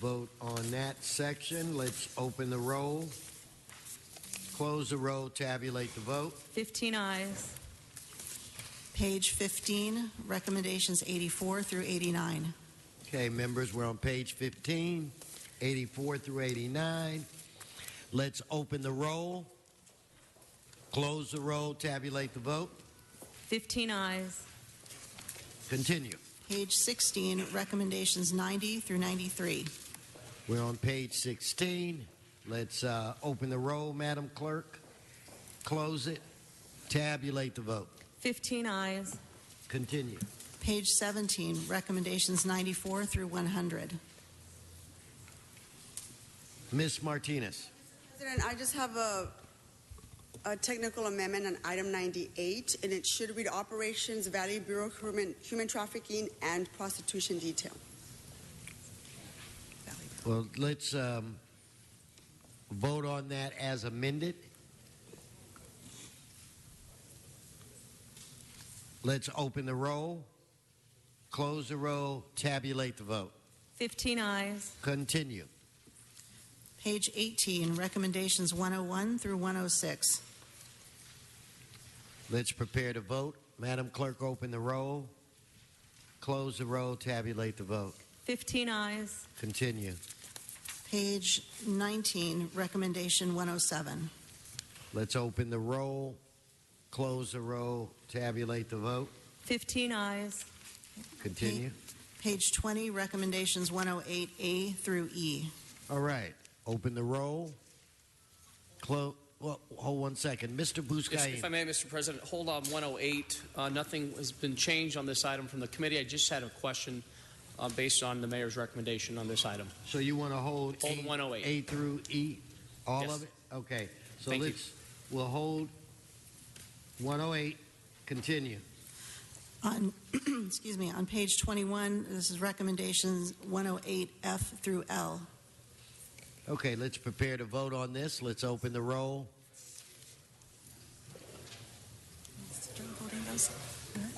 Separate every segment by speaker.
Speaker 1: Vote on that section. Let's open the roll. Close the roll, tabulate the vote.
Speaker 2: 15 eyes.
Speaker 3: Page 15, recommendations 84 through 89.
Speaker 1: Okay, members, we're on page 15, 84 through 89. Let's open the roll. Close the roll, tabulate the vote.
Speaker 2: 15 eyes.
Speaker 1: Continue.
Speaker 3: Page 16, recommendations 90 through 93.
Speaker 1: We're on page 16. Let's uh, open the roll, Madam Clerk. Close it, tabulate the vote.
Speaker 2: 15 eyes.
Speaker 1: Continue.
Speaker 3: Page 17, recommendations 94 through 100.
Speaker 1: Ms. Martinez.
Speaker 4: President, I just have a, a technical amendment on item 98, and it should read Operations Valley Bureau Human, Human Trafficking and Prostitution Detail.
Speaker 1: Well, let's um, vote on that as amended. Let's open the roll, close the roll, tabulate the vote.
Speaker 2: 15 eyes.
Speaker 1: Continue.
Speaker 3: Page 18, recommendations 101 through 106.
Speaker 1: Let's prepare to vote. Madam Clerk, open the roll, close the roll, tabulate the vote.
Speaker 2: 15 eyes.
Speaker 1: Continue.
Speaker 3: Page 19, recommendation 107.
Speaker 1: Let's open the roll, close the roll, tabulate the vote.
Speaker 2: 15 eyes.
Speaker 1: Continue.
Speaker 3: Page 20, recommendations 108A through E.
Speaker 1: All right. Open the roll. Close. Well, hold one second. Mr.
Speaker 5: If- If I
Speaker 1: Buscaino.
Speaker 5: may, Mr. President, hold on 108. Uh, Nothing has been changed on this item from the committee. I just had a question uh, based on the mayor's recommendation on this item.
Speaker 1: So you want to hold,
Speaker 5: Hold
Speaker 1: A-
Speaker 5: 108.
Speaker 1: A through E? All
Speaker 5: Yes.
Speaker 1: of it? Okay. So
Speaker 5: Thank you.
Speaker 1: let's, we'll hold 108. Continue.
Speaker 3: On, excuse me, on page 21, this is recommendations 108F through L.
Speaker 1: Okay, let's prepare to vote on this. Let's open the roll.
Speaker 6: Joe holding those?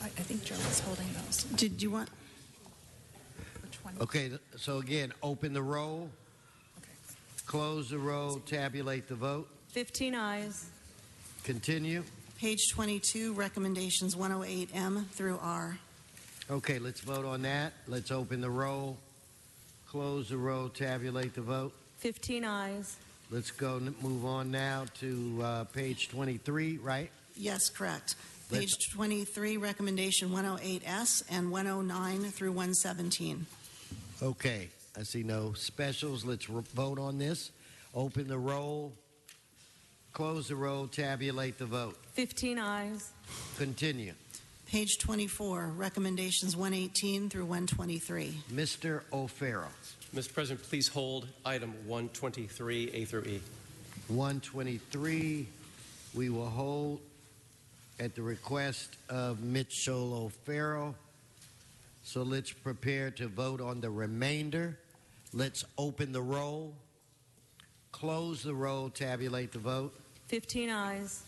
Speaker 6: I I think Joe was holding those.
Speaker 3: Did you want,
Speaker 6: Which one?
Speaker 1: Okay, th- so again, open the roll,
Speaker 6: Okay.
Speaker 1: close the roll, tabulate the vote.
Speaker 2: 15 eyes.
Speaker 1: Continue.
Speaker 3: page 22, recommendations 108M through R.
Speaker 1: Okay, let's vote on that. Let's open the roll, close the roll, tabulate the vote.
Speaker 2: 15 eyes.
Speaker 1: Let's go n- move on now to uh, page 23, right?
Speaker 3: Yes, correct.
Speaker 1: Let's-
Speaker 3: Page 23, recommendation 108S and 109 through 117.
Speaker 1: Okay. I see no specials. Let's re- vote on this. Open the roll, close the roll, tabulate the vote.
Speaker 2: 15 eyes.
Speaker 1: Continue.
Speaker 3: Page 24, recommendations 118 through 123.
Speaker 1: Mr. O'Farrell,
Speaker 7: Mr. President, please hold item 123, A through E.
Speaker 1: 123. We will hold at the request of Mitchell O'Farrell. So let's prepare to vote on the remainder. Let's open the roll, close the roll, tabulate the vote.
Speaker 2: 15 eyes.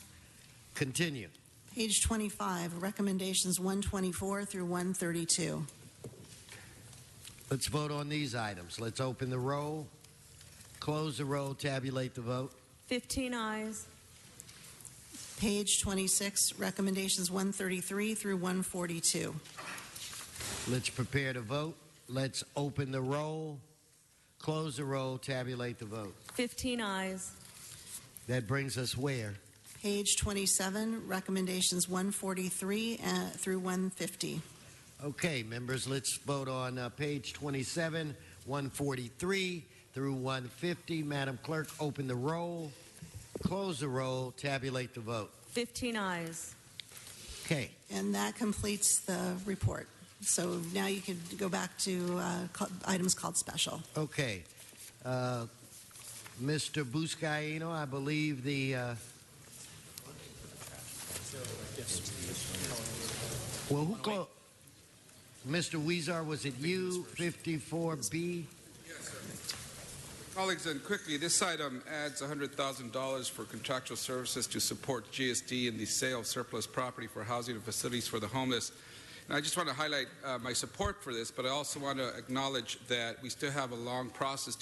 Speaker 1: Continue.
Speaker 3: Page 25, recommendations 124 through 132.
Speaker 1: Let's vote on these items. Let's open the roll, close the roll, tabulate the vote.
Speaker 2: 15 eyes.
Speaker 3: Page 26, recommendations 133 through 142.
Speaker 1: Let's prepare to vote. Let's open the roll, close the roll, tabulate the vote.
Speaker 2: 15 eyes.
Speaker 1: That brings us where?
Speaker 3: Page 27, recommendations 143 uh, through 150.
Speaker 1: Okay, members, let's vote on uh, page 27, 143 through 150. Madam Clerk, open the roll, close the roll, tabulate the vote.
Speaker 2: 15 eyes.
Speaker 1: Okay,
Speaker 3: And that completes the report. So now you could go back to uh, ca- items called special.
Speaker 1: okay. Uh, Mr. Buscaino, I believe the. Uh, well, who closed? Mr. Weezer, was it you? 54B?
Speaker 8: Colleagues, and quickly, this item adds $100,000 for contractual services to support GSD in the sale of surplus property for housing and facilities for the homeless. And I just want to highlight uh, my support for this, but I also want to acknowledge that we still have a long process